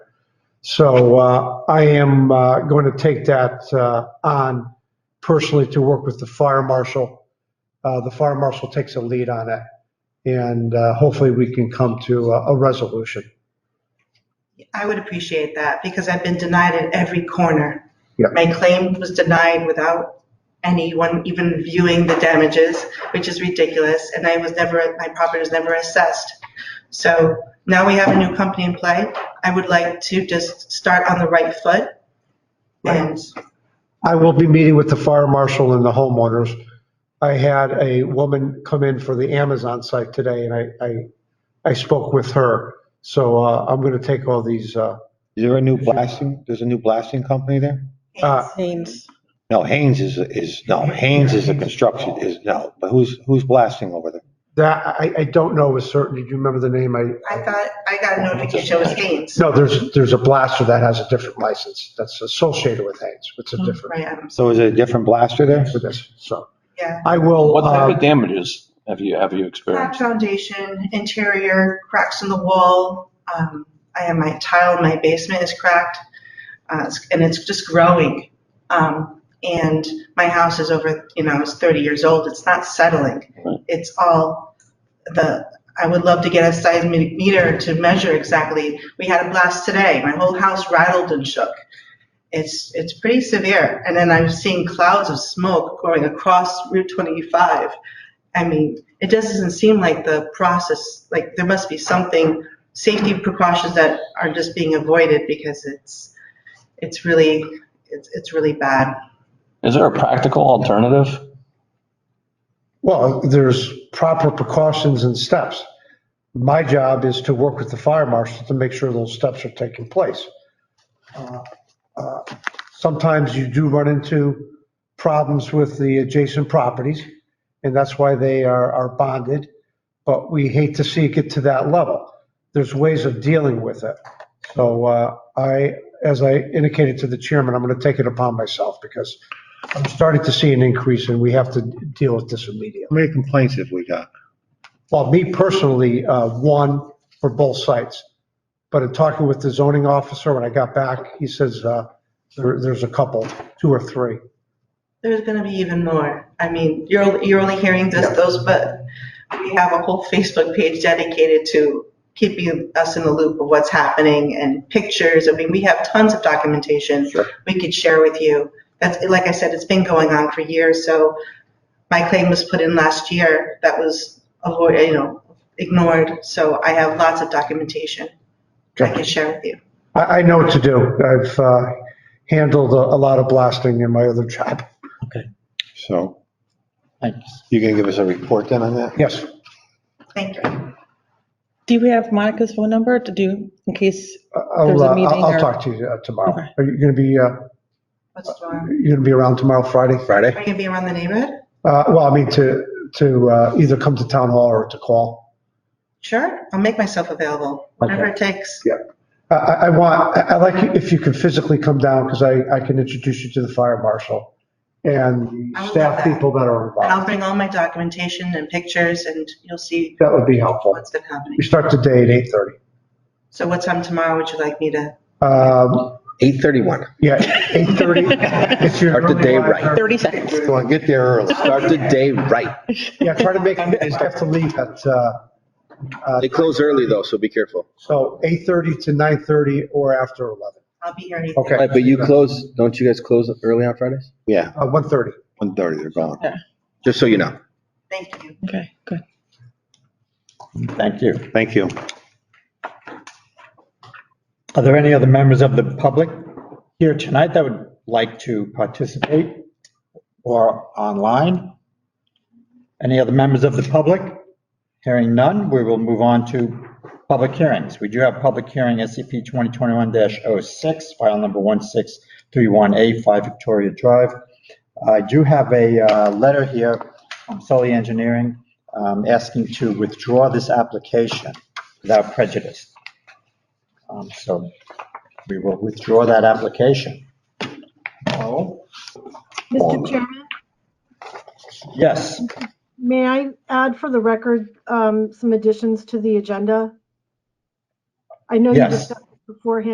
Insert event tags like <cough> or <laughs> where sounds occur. So uh, I am uh, going to take that uh, on personally to work with the fire marshal. Uh, The fire marshal takes a lead on it, and uh, hopefully we can come to a a resolution. I would appreciate that because I've been denied at every corner. Yeah. My claim was denied without anyone even reviewing the damages, which is ridiculous, and I was never, my property was never assessed. So now we have a new company in play. I would like to just start on the right foot. And I will be meeting with the fire marshal and the homeowners. I had a woman come in for the Amazon site today, and I, I, I spoke with her. So uh, I'm going to take all these, uh, Is there a new blasting, there's a new blasting company there? uh, No, Haynes is, is, no, Haynes is a construction, is, no, but who's, who's blasting over there? that, I, I don't know with certainty. Do you remember the name? I, I thought, I got a notification, it was Haynes. no, there's, there's a blaster that has a different license that's associated with Haynes. It's a different, Right, um, So is it a different blaster there? for this, so. yeah. I will, What type uh, of damages have you, have you Cracked experienced? foundation, interior, cracks in the wall. Um, I have my tile in my basement is cracked, uh, it's- and it's just growing. Um, and my house is over, you know, it's 30 years old. It's not settling. Right. It's all the. I would love to get a seismic meter to measure exactly. We had a blast today. My whole house rattled and shook. It's it's pretty severe. And then I'm seeing clouds of smoke going across Route 25. I mean, it doesn't seem like the process, like there must be something, safety precautions that are just being avoided because it's, it's really, it's, it's really bad. Is there a practical alternative? well, there's proper precautions and steps. My job is to work with the fire marshal to make sure those steps are taking place. Uh, sometimes you do run into problems with the adjacent properties, and that's why they are, are bonded, but we hate to see it get to that level. There's ways of dealing with it. So uh, I, as I indicated to the chairman, I'm going to take it upon myself because I'm starting to see an increase and we have to deal with this immediately. How many complaints have we got? Well, me personally, uh, one for both sites. But in talking with the zoning officer, when I got back, he says, uh, there, there's a couple, two or three. There's gonna be even more. I mean, you're, you're only hearing this, those, but we have a whole Facebook page dedicated to keeping us in the loop of what's happening and pictures. I mean, we have tons of documentation Sure. we could share with you. That's, like I said, it's been going on for years, so my claim was put in last year that was avoid, you know, ignored, so I have lots of documentation I can share with you. I, I know what to do. I've uh, handled a a lot of blasting in my other job. So Thanks. you gonna give us a report then on that? Yes. Thank you. Do you have Monica's phone number to do, in case, I'll, There's a uh, meeting I'll I'll or- talk to you uh, tomorrow. Okay. Are you going to be, uh, What's tomorrow? you going to be around tomorrow, Friday? Are Friday? you gonna be around the neighborhood? Uh, Well, I mean, to, to uh, either come to town hall or to call. Sure, I'll make myself available, whatever it takes. I, I I want, I- I like if you can physically come down because I, I can introduce you to the fire marshal and the I will do staff that. people that are And I'll involved. bring all my documentation and pictures, and you'll see That would be helpful. what's been happening. We start the day at 8:30. So what time tomorrow would you like me to? Um, Eight thirty-one. Yeah, <laughs> 8:30. It's your Start the early day riser. right. 30 seconds? You wanna get there early. Start the day right. Yeah, try to <laughs> make, I have to leave at, uh, uh, They close early though, so be careful. so 8:30 to 9:30 or after 11, I'll be here anything. Okay. Right, but you close, don't you guys close early on Fridays? Yeah, uh, 1:30. one thirty, they're gone. Just so you know. Thank you. Okay, good. Thank you. Thank you. Are there any other members of the public here tonight that would like to participate or online? Any other members of the public? Hearing none, we will move on to public hearings. We do have public hearing E SCP 2021-06, file number 1631A, 5 Victoria Drive. I do have a uh, letter here from Sully Engineering um, asking to withdraw this application without prejudice. Um, So we will withdraw that application. Oh, Mr. Chairman, yes, may I add for the record um, some additions to the agenda? I know you Yes. discussed it beforehand.